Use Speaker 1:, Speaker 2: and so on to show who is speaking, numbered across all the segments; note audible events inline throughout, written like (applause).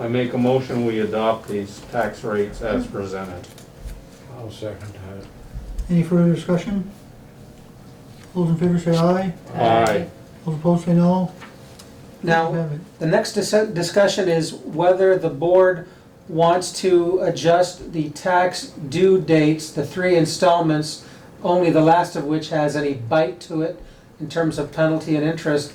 Speaker 1: I make a motion, we adopt these tax rates as presented.
Speaker 2: I'll second that.
Speaker 3: Any further discussion? Those in favor say aye,
Speaker 1: Aye.
Speaker 3: those opposed say no.
Speaker 4: Now, the next dis- discussion is whether the board wants to adjust the tax due dates, the three installments, only the last of which has any bite to it in terms of penalty and interest.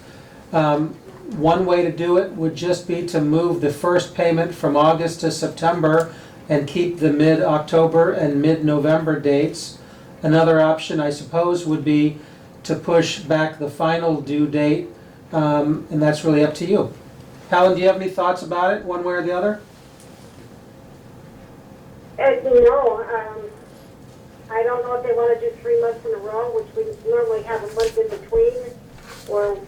Speaker 4: Um, One way to do it would just be to move the first payment from August to September and keep the mid-October and mid-November dates. Another option, I suppose, would be to push back the final due date um, and that's really up to you. Helen, do you have any thoughts about it, one way or the other?
Speaker 5: Uh, no, um, I don't know if they wanna do three months in a row, which we normally have a month in between, or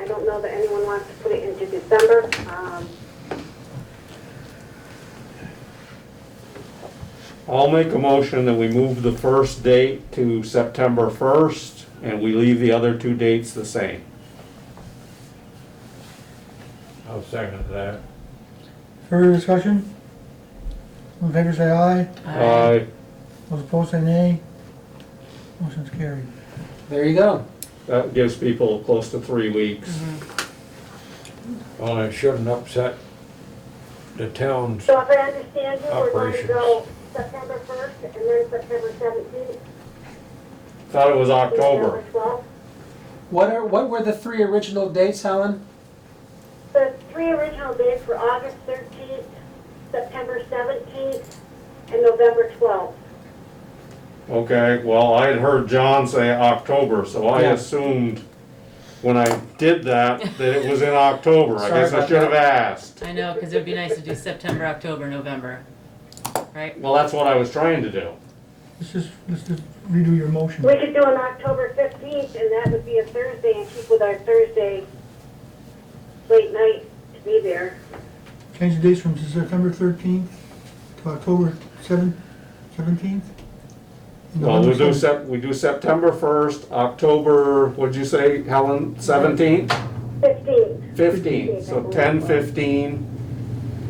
Speaker 5: I don't know that anyone wants to put it into December, um,
Speaker 1: I'll make a motion that we move the first date to September 1st, and we leave the other two dates the same.
Speaker 2: I'll second that.
Speaker 3: Further discussion? Those in favor say aye,
Speaker 1: Aye.
Speaker 3: those opposed say nay. Motion's carried.
Speaker 4: There you go.
Speaker 1: That gives people close to three weeks.
Speaker 2: Well, it shouldn't upset the town's,
Speaker 5: so if I understand you, we're going to
Speaker 2: Operations.
Speaker 5: go September first and then September seventeenth.
Speaker 1: Thought it was October.
Speaker 4: What are, what were the three original dates, Helen?
Speaker 5: The three original dates were August thirteenth, September seventeenth, and November twelfth.
Speaker 1: Okay, well, I had heard John say October, so I
Speaker 4: Yeah.
Speaker 1: assumed when I did that, that it was in October. I
Speaker 4: Sorry
Speaker 1: guess I
Speaker 4: about
Speaker 1: should have asked.
Speaker 6: I know, because it would be nice to do September, October, November, right?
Speaker 1: Well, that's what I was trying to do.
Speaker 3: Let's just, let's just redo your motion.
Speaker 5: We could do an October fifteenth, and that would be a Thursday, and keep with our Thursday late night to be there.
Speaker 3: Change the dates from September thirteenth to October seven, seventeenth?
Speaker 1: Well, we do Sep, we do September first, October, what'd you say, Helen, seventeenth,
Speaker 5: Fifteenth,
Speaker 1: fifteenth, so ten, fifteen.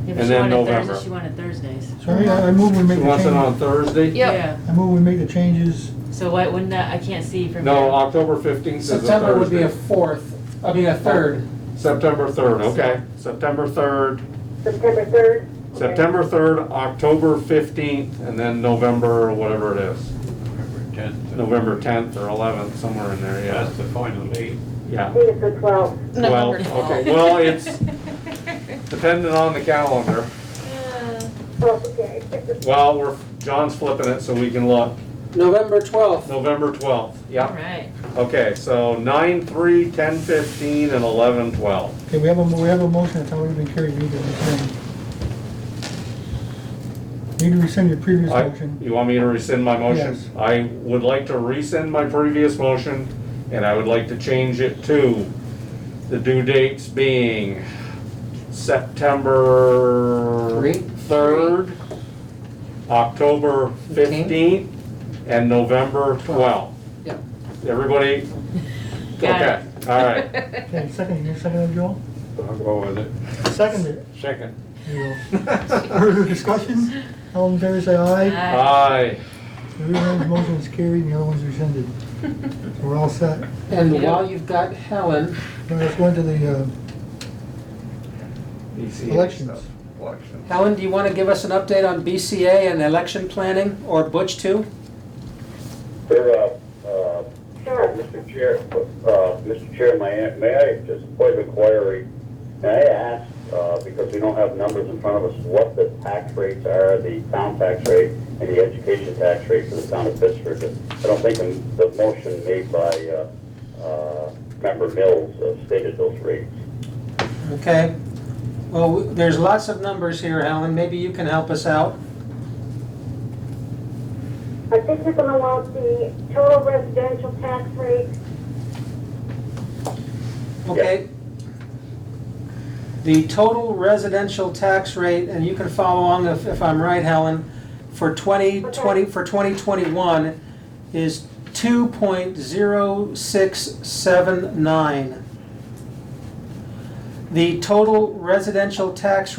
Speaker 1: And then November.
Speaker 6: She wanted Thursdays.
Speaker 3: Sorry, I I move we
Speaker 1: She
Speaker 3: make the
Speaker 1: wants it
Speaker 3: change,
Speaker 1: on Thursday?
Speaker 6: Yeah.
Speaker 3: I move we make the changes,
Speaker 6: So why wouldn't that, I can't see from here.
Speaker 1: No, uh, October fifteenth is a
Speaker 4: September would be a
Speaker 1: Thursday.
Speaker 4: fourth, I mean, a third.
Speaker 1: September third, okay, September third,
Speaker 5: September third.
Speaker 1: September third, October fifteenth, and then November, whatever it is.
Speaker 2: November tenth.
Speaker 1: November tenth or eleventh, somewhere in there, yeah,
Speaker 2: That's the final date.
Speaker 5: I
Speaker 1: yeah.
Speaker 5: think it's the twelfth.
Speaker 1: Well, okay, well, it's dependent on the calendar.
Speaker 5: Oh, okay.
Speaker 1: Well, we're, John's flipping it so we can look.
Speaker 4: November 12th.
Speaker 1: November twelfth,
Speaker 6: All
Speaker 1: yeah.
Speaker 6: right.
Speaker 1: Okay, so nine, three, ten, fifteen, and eleven, twelve.
Speaker 3: okay, we have a, mo- we have a motion, that's already been carried, we need to rescind. Need to rescind your previous
Speaker 1: I-
Speaker 3: motion.
Speaker 1: You want me to rescind my motion?
Speaker 3: Yes.
Speaker 1: I would like to rescind my previous motion, and I would like to change it to the due dates being September
Speaker 4: Three?
Speaker 1: third, October fifteenth, and November twelfth.
Speaker 4: Yep.
Speaker 1: Everybody?
Speaker 6: Got it.
Speaker 1: Okay, all right.
Speaker 6: (laughs)
Speaker 3: Okay, second, you seconded, Joel?
Speaker 2: I'll go with it.
Speaker 3: Seconded.
Speaker 2: Second.
Speaker 3: Joel.
Speaker 1: (laughs)
Speaker 3: Further discussion? All in favor say aye.
Speaker 6: Aye.
Speaker 1: Uh, Aye.
Speaker 3: Everyone's motion is carried and the other one's rescinded. So we're all set.
Speaker 4: And while you've got Helen,
Speaker 3: Now let's go into the, uh,
Speaker 1: BCA
Speaker 3: Elections.
Speaker 1: stuff. Elections.
Speaker 4: Helen, do you want to give us an update on BCA and election planning, or Butch too?
Speaker 7: Sir, uh, uh,
Speaker 5: Sure.
Speaker 7: Mr. Chair, uh, Mr. Chair, may I, may I just point of inquiry? May I ask, uh, because we don't have numbers in front of us, what the tax rates are, the town tax rate and the education tax rate for the town of Pittsburgh? I don't think in the motion made by, uh, uh, member Mills uh, stated those rates.
Speaker 4: Okay. Well, w- there's lots of numbers here, Helen. Maybe you can help us out.
Speaker 5: I think you're gonna want the total residential tax rate,
Speaker 4: Okay. The total residential tax rate, and you can follow along if, if I'm right, Helen, for 2020, for 2021 is 2.0679. The total residential tax